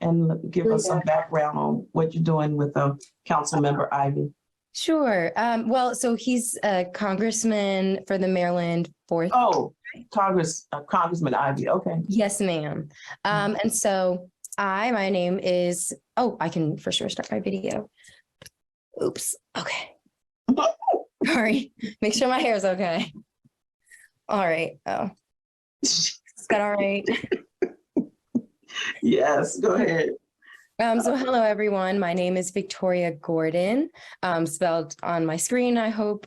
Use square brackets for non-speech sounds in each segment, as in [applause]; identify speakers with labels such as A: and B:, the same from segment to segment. A: and l- give us some background on what you're doing with uh, Councilmember Ivy?
B: Sure. Um, well, so he's a congressman for the Maryland fourth.
A: Oh, Congress, uh, Congressman Ivy, okay. [laughs]
B: Yes, ma'am. Um, and so I, my name is, oh, I can for sure start my video. Oops, okay. Sorry, make sure my hair is okay. All right, oh, is that all right?
A: Yes, go ahead.
B: Um, so hello, everyone. My name is Victoria Gordon, um, spelled on my screen, I hope.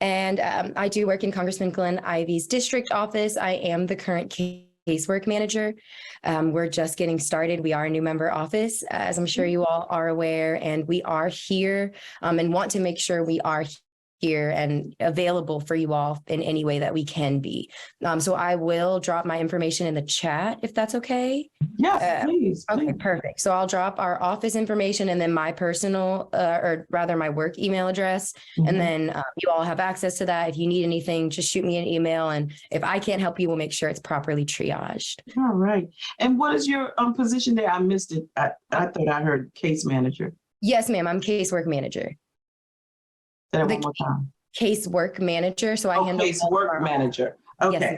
B: And um, I do work in Congressman Glenn Ivy's district office. I am the current ca- casework manager. Um, we're just getting started. We are a new member office, as I'm sure you all are aware, and we are here um, and want to make sure we are here and available for you all in any way that we can be. Um, so I will drop my information in the chat if that's okay.
A: Yes,
B: Uh,
A: please,
B: Okay,
A: please.
B: perfect. So I'll drop our office information and then my personal, uh, or rather my work email address.
A: Mm-hmm.
B: And then uh, you all have access to that. If you need anything, just shoot me an email. And if I can't help you, we'll make sure it's properly triaged.
A: Mm-hmm. All right. And what is your um, position there? I missed it. I, I thought I heard case manager.
B: Yes, ma'am, I'm casework manager,
A: Say that
B: The
A: one more time.
B: casework manager. So I
A: Oh,
B: handle.
A: case work manager.
B: Yes,
A: Okay.
B: ma'am.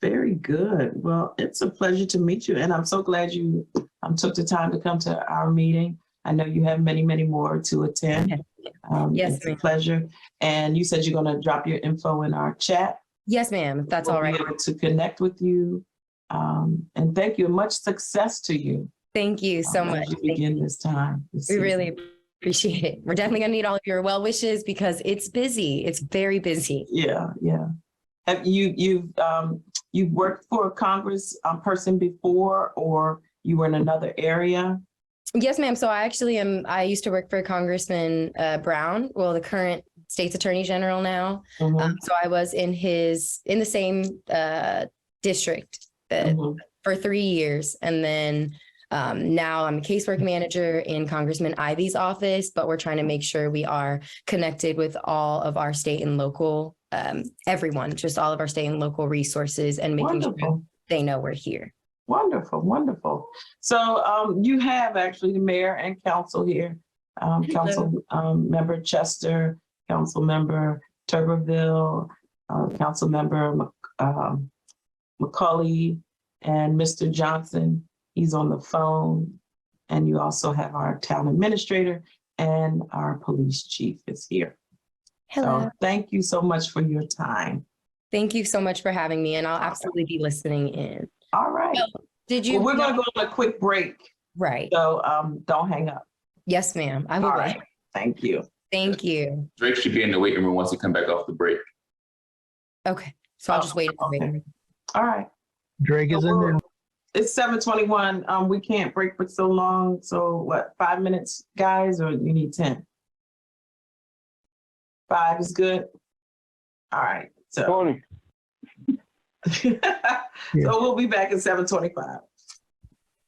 A: Very good. Well, it's a pleasure to meet you, and I'm so glad you um, took the time to come to our meeting. I know you have many, many more to attend. Um,
B: Yes,
A: It's a
B: ma'am.
A: pleasure. And you said you're going to drop your info in our chat.
B: Yes, ma'am, if that's
A: We'll
B: all
A: be
B: right.
A: able To connect with you. Um, And thank you. and Much success to you.
B: Thank you so
A: um,
B: much.
A: As you
B: Thank you.
A: begin this time. this
B: We
A: season.
B: really appreciate it. We're definitely gonna need all of your well wishes because it's busy. It's very busy.
A: Yeah, yeah. Have you, you've, um, you've worked for a Congress um, person before, or you were in another area?
B: Yes, ma'am. So I actually am, I used to work for Congressman uh, Brown, well, the current state's attorney general now.
A: Mhm,
B: Um, so I was in his, in the same uh, district uh,
A: mhm.
B: for three years. And then um, now I'm a casework manager in Congressman Ivy's office, but we're trying to make sure we are connected with all of our state and local, um, everyone, just all of our state and local resources and making sure
A: Wonderful.
B: they know we're here.
A: Wonderful, wonderful. So um, you have actually the mayor and council here. Um,
B: Hello.
A: council um, member Chester, council member Tuberville, uh, council member Mc- um, McCauley, and Mr. Johnson. He's on the phone. And you also have our town administrator and our police chief is here.
B: Hello.
A: So thank you so much for your time.
B: Thank you so much for having me and I'll absolutely be listening in.
A: All right.
B: Did you?
A: Well, we're going
B: know-
A: to go on a quick break.
B: Right.
A: So um, don't hang up.
B: Yes, ma'am. I
A: All
B: will.
A: right. Thank you.
B: Thank you.
C: Drake should be in the waiting room once he come back off the break.
B: Okay. So I'll just wait.
A: Oh, okay. All right.
D: Drake is in there.
A: It's seven twenty-one. Um, we can't break for so long. So what, five minutes, guys, or you need ten? Five is good. All [laughs] right, so.
E: Tony,
A: So we'll be back at seven twenty-five.